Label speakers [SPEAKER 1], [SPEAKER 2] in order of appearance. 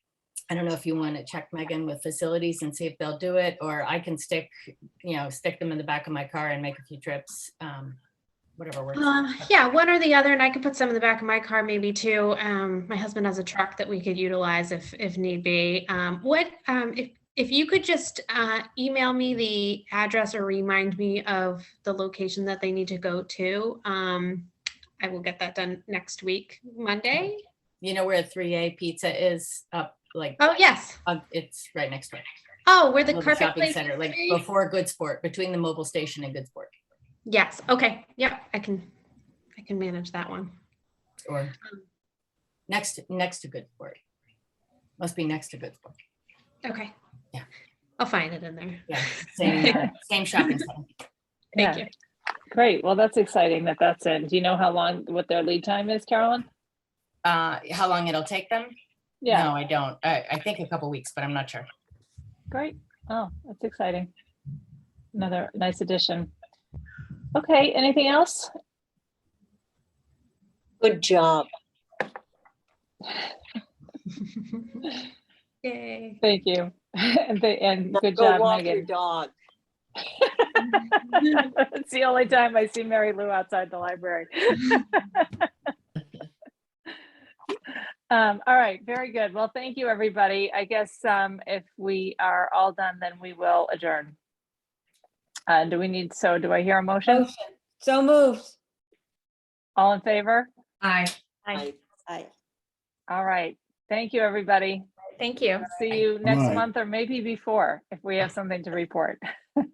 [SPEAKER 1] I don't know if you want to check Megan with facilities and see if they'll do it, or I can stick, you know, stick them in the back of my car and make a few trips. um, Whatever works.
[SPEAKER 2] Um, yeah, one or the other, and I could put some in the back of my car maybe too. Um, my husband has a truck that we could utilize if, if need be. Um, what, um, if, if you could just, uh, email me the address or remind me of the location that they need to go to, um, I will get that done next week, Monday.
[SPEAKER 1] You know where three A pizza is up, like,
[SPEAKER 2] Oh, yes.
[SPEAKER 1] uh, it's right next door.
[SPEAKER 2] Oh, where the
[SPEAKER 1] Mobile
[SPEAKER 2] carpet
[SPEAKER 1] shopping
[SPEAKER 2] place.
[SPEAKER 1] center,
[SPEAKER 2] used
[SPEAKER 1] like
[SPEAKER 2] to be?
[SPEAKER 1] before Good Sport, between the mobile station and Good Sport,
[SPEAKER 2] Yes, okay, yep, I can, I can manage that one. Um.
[SPEAKER 1] or next, next to Good Sport. Must be next to Good Sport.
[SPEAKER 2] Okay.
[SPEAKER 1] Yeah.
[SPEAKER 2] I'll find it in there.
[SPEAKER 1] Yeah, same, uh, same shopping center.
[SPEAKER 2] Thank
[SPEAKER 3] Yeah.
[SPEAKER 2] you.
[SPEAKER 3] Great. Well, that's exciting that that's in. Do you know how long, what their lead time is, Carolyn?
[SPEAKER 1] Uh, how long it'll take them?
[SPEAKER 3] Yeah,
[SPEAKER 1] No, I don't. I, I think a couple weeks, but I'm not sure.
[SPEAKER 3] great. Oh, that's exciting. Another nice addition. Okay, anything else?
[SPEAKER 4] Good job.
[SPEAKER 2] Yay.
[SPEAKER 3] Thank you. And they, and
[SPEAKER 4] Now
[SPEAKER 3] good
[SPEAKER 4] go
[SPEAKER 3] job,
[SPEAKER 4] walk your
[SPEAKER 3] Megan.
[SPEAKER 4] dog.
[SPEAKER 3] It's the only time I see Mary Lou outside the library. Um, all right, very good. Well, thank you, everybody. I guess, um, if we are all done, then we will adjourn. Uh, do we need, so do I hear a motion?
[SPEAKER 5] Motion. So moved.
[SPEAKER 3] All in favor?
[SPEAKER 6] Aye.
[SPEAKER 4] I, I,
[SPEAKER 3] All right. Thank you, everybody.
[SPEAKER 2] Thank you.
[SPEAKER 3] See you next
[SPEAKER 7] Right.
[SPEAKER 3] month or maybe before if we have something to report.